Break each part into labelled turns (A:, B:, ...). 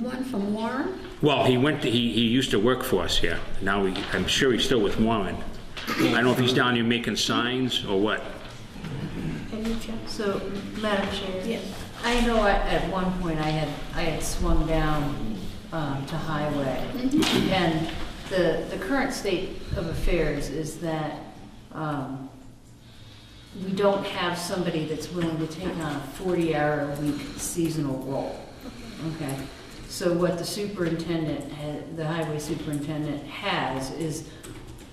A: one from Warren?
B: Well, he went, to- he, he used to work for us here. Now, he- I'm sure he's still with Warren. I don't know if he's down here making signs or what.
C: So, Madam Chair?
A: Yeah.
C: I know I- at one point I had, I had swung down um, to Highway. And the, the current state of affairs is that um, we don't have somebody that's willing to take on a 40-hour-a-week seasonal role. Okay? So what the superintendent, ha- the highway superintendent has is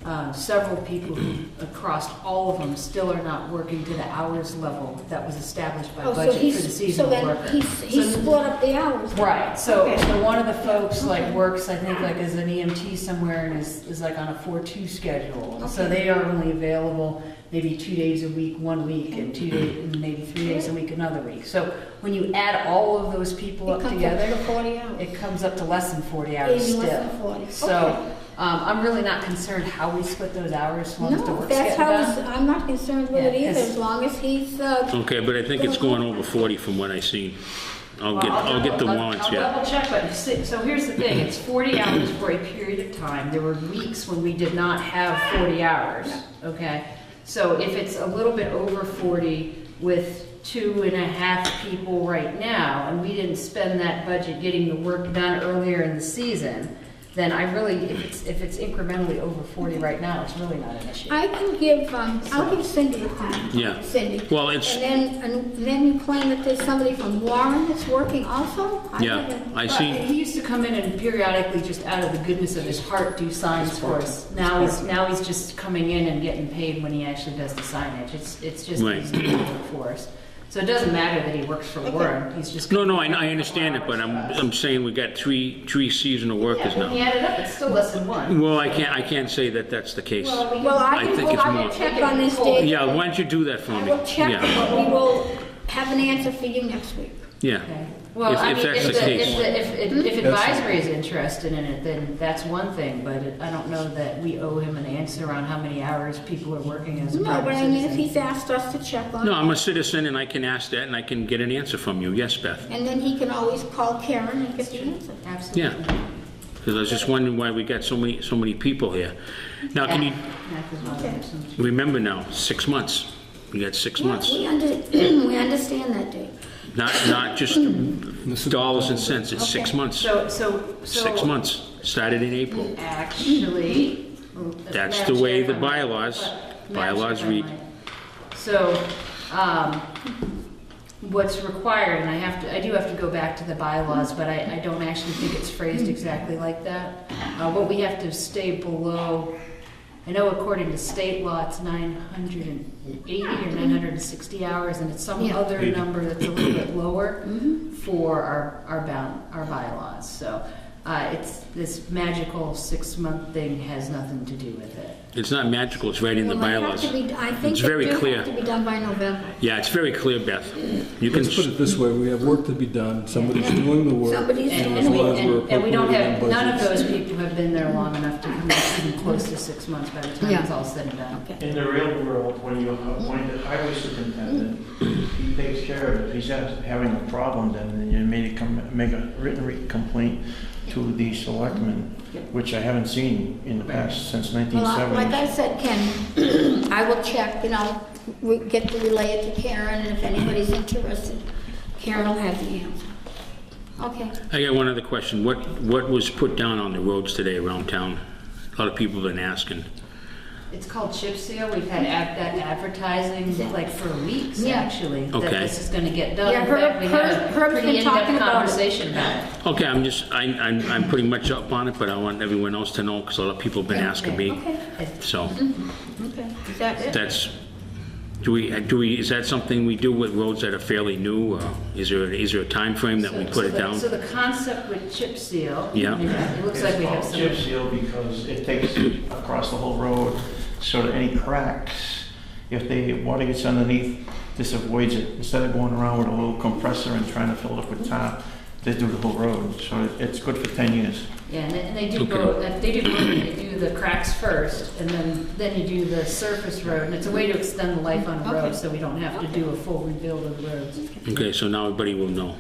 C: uh, several people who, across all of them still are not working to the hours level that was established by
D: Oh, so
C: budget for the
D: he's-
C: seasonal worker.
D: So then he's, he's
C: So-
D: split up the hours.
C: Right, so,
D: Okay.
C: so one of the folks like works, I think, like as an EMT somewhere and is, is like on a four-two schedule. So they are only available maybe two days a week, one week, and two days, and maybe three days a week, another week. So when you add all of those people
D: It
C: up
D: comes up to
C: together,
D: the 40 hours.
C: it comes up to less than forty hours
D: Maybe
C: still.
D: less than 40.
C: So, um, I'm really not concerned how we split those hours, as long as the
D: No,
C: work's
D: that's
C: getting
D: how,
C: done.
D: it's- I'm not concerned with it
C: Yeah,
D: either,
C: 'cause-
D: as long as he's, uh,
B: Okay, but I think it's going over 40 from what I seen. I'll get, I'll get the
C: I'll-
B: warrants,
C: I'll
B: yeah.
C: double check, but, si- so here's the thing, it's 40 hours for a period of time. There were weeks when we did not have 40 hours, okay? So if it's a little bit over 40 with two and a half people right now, and we didn't spend that budget getting the work done earlier in the season, then I really, if it's, if it's incrementally over 40 right now, it's really not an issue.
D: I can give, um, I'll give Cindy a call.
B: Yeah.
D: Cindy.
B: Well, it's-
D: And then, and then you claim that there's somebody from Warren that's working also? I
B: Yeah,
D: haven't-
B: I
C: But
B: seen,
C: He used to come in and periodically, just out of the goodness of his heart, do signs for us. Now he's, now he's just coming in and getting paid when he actually does the signage. It's, it's just,
B: Right.
C: he's doing it for us. So it doesn't matter that he works for Warren, he's just.
B: no, no, I, I understand it, but I'm, I'm saying we got three, three seasonal workers
C: Yeah, when you
B: now.
C: add it up, it's still less than one.
B: Well, I can't, I can't say that that's the case.
D: Well, I
B: I
D: can,
B: think
D: well,
B: it's
D: I
B: more-
D: will check on this date.
B: Yeah, why don't you do that for
D: I
B: me?
D: will check,
B: Yeah,
D: but we will have an answer for you next week.
B: yeah.
C: Okay. Well,
B: If-
C: I
B: if
C: mean,
B: that's
C: if,
B: the
C: the-
B: case. Hmm?
C: if, the- if, if- if advisory is interested in it, then that's one thing, but it- I don't know that we owe him an answer on how many hours people are working as a
D: No,
C: private
D: but I mean, if
C: citizen.
D: he's asked us to check on
B: No,
D: it,
B: I'm a citizen and I can ask that and I can get an answer from you. Yes, Beth?
D: and then he can always call Karen and get the answer.
B: Yeah.
C: Absolutely.
B: Because I was just wondering why we got so many, so many people here. Now, can you,
C: Math is not an option.
B: remember now, six months. We got six months.
D: We under, we understand that, Dave.
B: Not, not just dollars and cents, it's six months.
C: So, so, so.
B: Six months, started in April.
C: Actually.
B: That's
C: Madam
B: the way
C: Chair,
B: the
C: if I might-
B: bylaws-
C: but- Madam
B: bylaws
C: Chair, if I
B: read.
C: might. So, um, what's required, and I have to, I do have to go back to the bylaws, but I, I don't actually think it's phrased exactly like that. Uh, what we have to stay below, I know according to state law, it's nine hundred and eighty or nine hundred and sixty hours, and it's some
A: Yeah.
C: other number that's a little bit lower for our, our bound, our bylaws, so, uh, it's, this magical six-month thing has nothing to do with it.
B: It's not magical, it's right in the
D: Well, they have
B: bylaws.
D: to be- I think
B: It's
D: they
B: very
D: do
B: clear.
D: have to be done by November.
B: Yeah, it's very clear, Beth. You can,
E: Let's put it this way, we have work to be done, somebody's doing the work.
D: Somebody's
E: and
C: And,
E: as
C: and we,
E: long as we're
C: and, and we don't have,
E: appropriating
C: none of
E: budgets.
C: those people have been there long enough to come even close to six months by the time it's
A: Yeah.
C: all said and done.
F: In the real world, when you appoint a highway superintendent, he takes care of it. If he's ha- having a problem, then you may come, make a written re- complaint to the selectmen, which I haven't seen in the past since
D: Well, I- like
F: 1970.
D: I said, Ken, I will check, and I'll re- get to relay it to Karen, and if anybody's interested, Karen will have the answer. Okay.
B: I got one other question. What, what was put down on the roads today around town? A lot of people have been asking.
C: It's called chip seal, we've had ad- that advertising like for weeks,
D: Yeah.
C: actually, that
B: Okay.
C: this is gonna get done.
D: Yeah,
C: In fact,
D: Herb-
C: we had
D: Herb-
C: a
D: Herb's
C: pretty
D: been
C: in-depth
D: talking about it.
C: conversation about it.
B: Okay, I'm just, I, I'm, I'm pretty much up on it, but I want everyone else to know because a lot of people have been asking me.
D: Okay.
B: So
D: Okay. Is that it?
B: that's, do we, do we, is that something we do with roads that are fairly new? or Is there, is there a timeframe that we
C: So-
B: put
C: so
B: it
C: the-
B: down?
C: So the concept with chip seal.
B: Yeah.
C: you know, It looks like we have
F: It's
C: some.
F: called Chip seal because it takes across the whole road, so that any cracks, if the water gets underneath, this avoids it. Instead of going around with a little compressor and trying to fill it up with tar, they do the whole road. So it's good for 10 years.
C: Yeah, and they- and they do
B: Okay.
C: go, they do, go- they do the cracks first, and then, then you do the surface road, and it's a way to extend the life on a road, so we don't have to do a full rebuild of roads.
B: Okay, so now everybody will know.